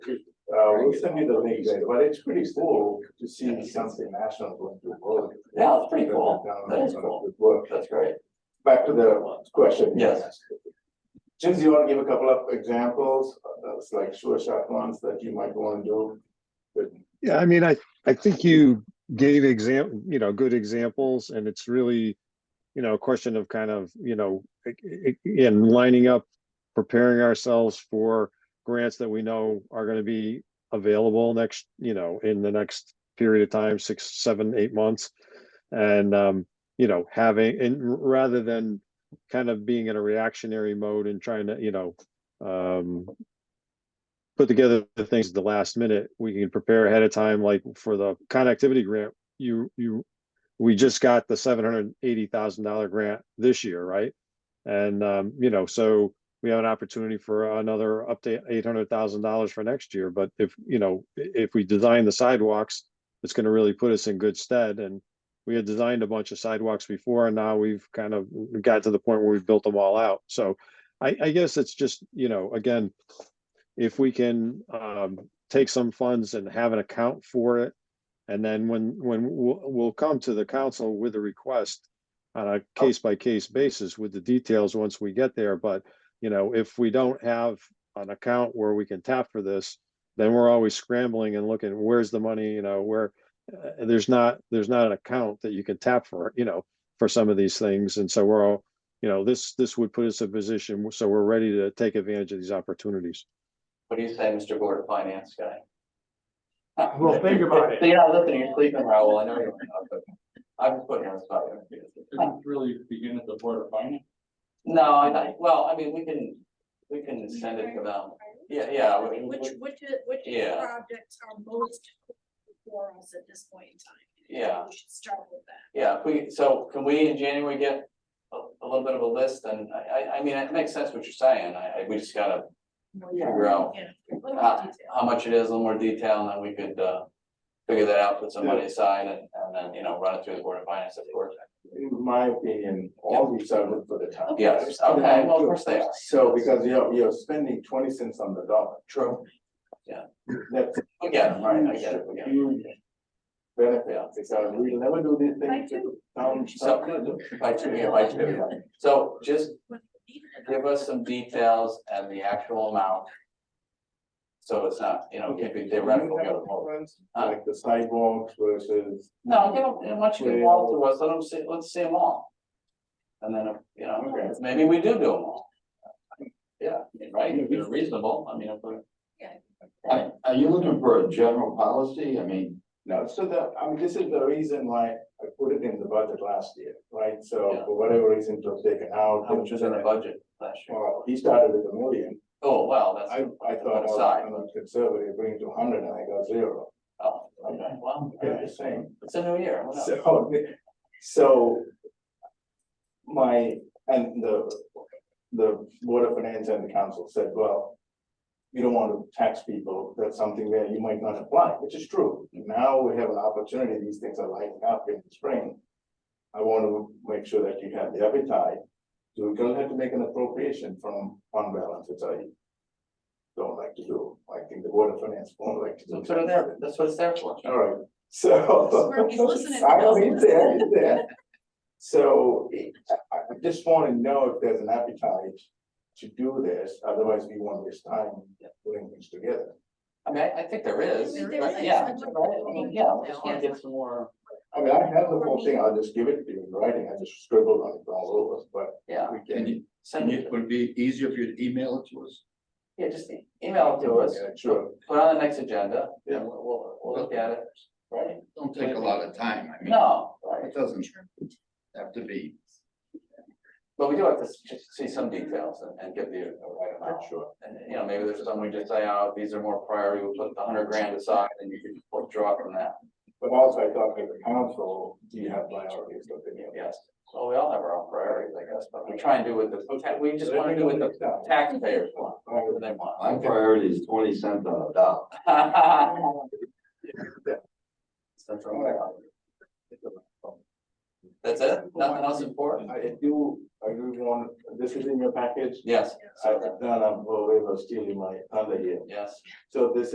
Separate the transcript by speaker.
Speaker 1: Uh, we'll send you the link later, but it's pretty cool to see something national going to work.
Speaker 2: Yeah, it's pretty cool. That is cool.
Speaker 1: Good work.
Speaker 2: That's great.
Speaker 1: Back to the question. you
Speaker 2: Yes.
Speaker 1: asked. Since you want to give a couple of examples, uh, that's like sure shot ones that you might want to do.
Speaker 3: Yeah, I mean, I, I think you gave exam, you know, good examples and it's really, you know, a question of kind of, you know, i- i- in lining up, preparing ourselves for grants that we know are going to be available next, you know, in the next period of time, six, seven, eight months. And, um, you know, having, and r- rather than kind of being in a reactionary mode and trying to, you know, um, put together the things at the last minute, we can prepare ahead of time, like for the connectivity grant, you, you, we just got the seven hundred and eighty thousand dollar grant this year, right? And, um, you know, so we have an opportunity for another up to eight hundred thousand dollars for next year, but if, you know, i- if we design the sidewalks, it's gonna really put us in good stead and we had designed a bunch of sidewalks before and now we've kind of got to the point where we've built them all out, so I, I guess it's just, you know, again, if we can um take some funds and have an account for it. And then when when we'll we'll come to the council with a request on a case by case basis with the details once we get there, but you know, if we don't have an account where we can tap for this, then we're always scrambling and looking, where's the money, you know, where uh, there's not, there's not an account that you can tap for, you know, for some of these things. And so we're all, you know, this this would put us in a position, so we're ready to take advantage of these opportunities.
Speaker 2: What do you say, Mr. Board of Finance guy?
Speaker 4: Well, think about it.
Speaker 2: So You're not listening, you're sleeping, Raoul. I know you're not, but I'm just putting you on the spot.
Speaker 4: Didn't really begin at the board of finance.
Speaker 2: No, I, I- well, I mean, we can, we can send it to them. Yeah, yeah. we- we-
Speaker 5: Which, which, is- which
Speaker 2: Yeah.
Speaker 5: projects are most for us at this point in time?
Speaker 2: Yeah.
Speaker 5: We should start with that.
Speaker 2: Yeah, if we, so can we in January get a, a little bit of a list and I, I, I mean, it makes sense what you're saying. I, I, we just gotta figure out
Speaker 5: Yeah. A little
Speaker 2: Ah.
Speaker 5: more detail.
Speaker 2: how much it is, a little more detail, and then we could, uh, figure that out, put some money aside and, and then, you know, run it through the Board of Finance, of course.
Speaker 1: In my opinion, all these are good for the town.
Speaker 2: Yes, okay, well, of course they are.
Speaker 1: So because you're, you're spending twenty cents on the dollar,
Speaker 2: True.
Speaker 1: that's.
Speaker 2: We get it, right, I get it, we get it.
Speaker 1: Huge Benefit, because we'll never do these things to the town.
Speaker 2: So, by two, yeah, by two, yeah. So just
Speaker 5: Even if-
Speaker 2: give us some details and the actual amount. So it's not, you know, it could be theoretical.
Speaker 1: Do you have
Speaker 2: go to
Speaker 1: a
Speaker 2: vote.
Speaker 1: preference,
Speaker 2: Huh?
Speaker 1: Like the sidewalks versus.
Speaker 2: No, give them, and once you get all to us, let them see, let's see them all. And then, you
Speaker 1: Okay.
Speaker 2: know, maybe we do do them all. Yeah, right, if they're reasonable, I mean, if we're.
Speaker 5: Yeah.
Speaker 2: Are, are you looking for a general policy? I mean.
Speaker 1: No, so the, I mean, this is the reason why I put it in the budget last year, right? So
Speaker 2: Yeah.
Speaker 1: for whatever reason it was taken out.
Speaker 2: How much was in the budget last year?
Speaker 1: Well, he started with a million.
Speaker 2: Oh, well,
Speaker 1: I,
Speaker 2: that's,
Speaker 1: I thought, well,
Speaker 2: Aside.
Speaker 1: I'm a conservative, bring it to hundred and I got zero.
Speaker 2: oh, okay, well,
Speaker 1: Yeah, the same.
Speaker 2: it's a new year, whatever.
Speaker 1: So, so my, and the, the board of finance and the council said, well, you don't want to tax people, that's something where you might not apply, which is true. Now we have an opportunity, these things are lighting up in the spring. I want to make sure that you have the appetite, so we're gonna have to make an appropriation from fund balance, which I don't like to do, I think the board of finance won't like to do.
Speaker 2: That's what it's there, that's what it's there for.
Speaker 1: All right, so.
Speaker 5: This is where he's listening.
Speaker 1: I know he's there, he's there. So I, I just wanna know if there's an appetite to do this, otherwise we won't waste time putting things together.
Speaker 2: I mean, I, I think there is,
Speaker 5: There
Speaker 2: but
Speaker 5: is.
Speaker 2: yeah, right, I mean, yeah, we just wanna get some more,
Speaker 1: I mean, I have the whole thing, I'll just give it to you in writing, I just scribbled on it all over,
Speaker 2: yeah,
Speaker 1: but we
Speaker 4: And
Speaker 1: can.
Speaker 4: it-
Speaker 2: send
Speaker 4: and
Speaker 2: it,
Speaker 4: it would be easier if you'd email it to us.
Speaker 2: yeah, just e- email it to us,
Speaker 1: Yeah, Sure,
Speaker 2: put it on the next agenda,
Speaker 1: Yeah.
Speaker 2: and we'll, we'll, we'll look at it, right?
Speaker 4: Don't take a lot of time. I mean,
Speaker 2: No, right,
Speaker 4: it doesn't have to be.
Speaker 2: but we do have to s- just see some details and, and get the uh, right amount.
Speaker 1: sure.
Speaker 2: And, you know, maybe there's some we just say, oh, these are more priority, we'll put the hundred grand aside and you can withdraw from that,
Speaker 1: But also I thought as a council, you have priorities, don't you?
Speaker 2: yes. Well, we all have our own priorities, I guess, but we try and do with the, we just wanna do with the
Speaker 1: the
Speaker 2: taxpayers want, whatever they
Speaker 6: My
Speaker 2: want.
Speaker 6: priority is twenty cents on a dollar.
Speaker 2: Central America. That's it? Nothing else important?
Speaker 1: I do, I do want, this is in your package?
Speaker 2: Yes,
Speaker 1: I, no, no, well, we were stealing my thunder here.
Speaker 2: yes.
Speaker 1: So this